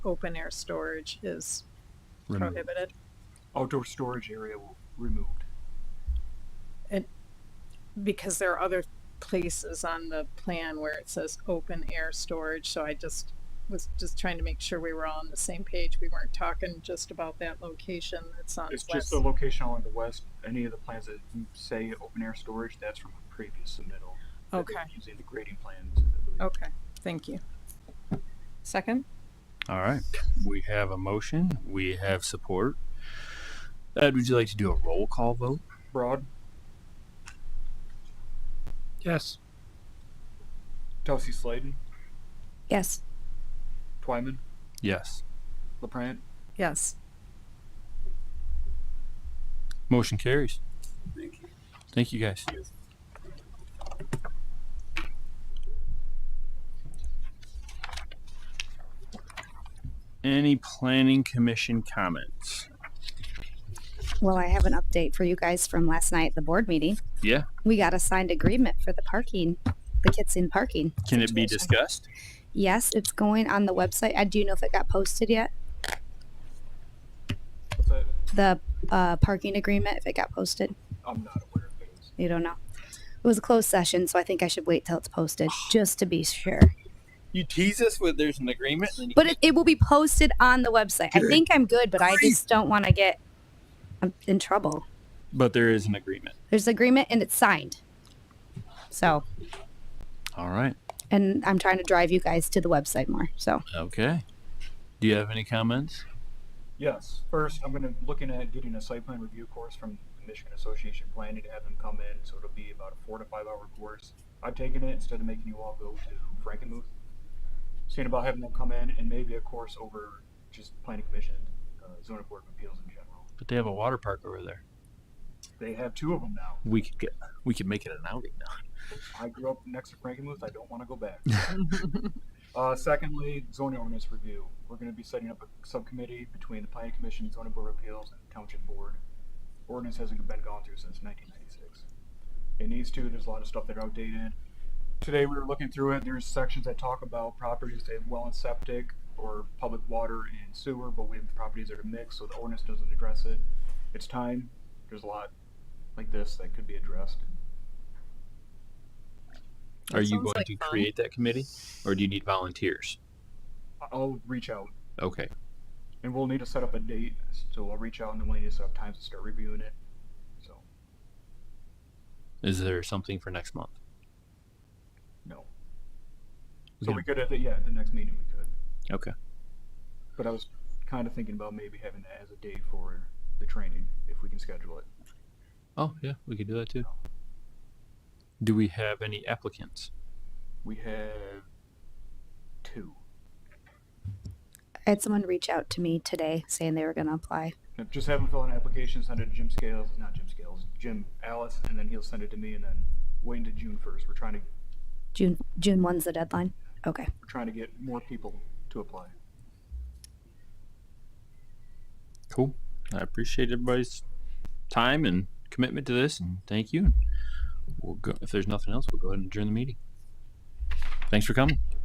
open air storage is Removed. prohibited. Outdoor storage area w- removed. Because there are other places on the plan where it says open air storage, so I just was just trying to make sure we were all on the same page. We weren't talking just about that location that's on It's just west. the location on the west, any of the plans that say open air storage, that's from a previous submittal. that they were Okay. Oh. Using the grading plans. I believe. Okay, thank you. Second? All right. We have a motion. We have support. Ed, would you like to do a roll call vote? Broad, Yes. Kelsey Sladen, Yes. Twyman, Yes. LaPrant, Yes. Motion carries. Thank you. Thank you, guys. Any planning commission comments? Well, I have an update for you guys from last night at the board meeting. Yeah. We got a signed agreement for the parking, the kids in parking. Can it be situation. discussed? Yes, it's going on the website. I do know if it got posted yet. what's that? The uh, parking agreement, if it got posted, I'm not aware of those. you don't know. It was a closed session, so I think I should wait till it's posted just to be sure. You tease us with there's an agreement, and then you But it, it will be posted on the website. I think I'm good, but I just don't want to get I'm in trouble. But there is an agreement. There's agreement and it's signed. So, All right. and I'm trying to drive you guys to the website more. So. Okay. Do you have any comments? Yes, first, I'm gonna, looking at getting a site plan review course from the Michigan Association of Planning to have them come in, so it'll be about a four to five hour course. I've taken it instead of making you all go to Frankenmuth. Seeing about having them come in and maybe a course over just planning commission, uh, zoning board of appeals in general. But they have a water park over there. They have two of them now. We could get we could make it an outing now. I grew up next to Frankenmuth. I don't want to go back. uh, secondly, zoning ordinance review. We're going to be setting up a subcommittee between the Planning Commission, Zoning Board of Appeals, and Township Board. Ordinance hasn't been gone through since 1996. It needs to. There's a lot of stuff that are outdated. Today we were looking through it. There's sections that talk about properties that have well and septic or public water and sewer, but we have properties that are mixed, so the ordinance doesn't address it. It's time. There's a lot like this that could be addressed. That Are you sounds going like to fun. create that committee or do you need volunteers? I- I'll reach out Okay. And we'll need to set up a date, so I'll reach out and then we'll need to set up times to start reviewing it. So, Is there something for next month? no. So Yeah. we could, at the, yeah, the next meeting we could. Okay. But I was kind of thinking about maybe having that as a date for the training, if we can schedule it. Oh, yeah, we could do that too. Do we have any applicants? We have two. I had someone reach out to me today saying they were going to apply. Now, Just have them fill out an application, send it to Jim Scales, not Jim Scales, Jim Alice, and then he'll send it to me and then wait until June first. We're trying to, June June one's the deadline. Okay. we're trying to get more people to apply. Cool. I appreciate everybody's time and commitment to this, and thank you. We'll go, if there's nothing else, we'll go ahead and adjourn the meeting. Thanks for coming.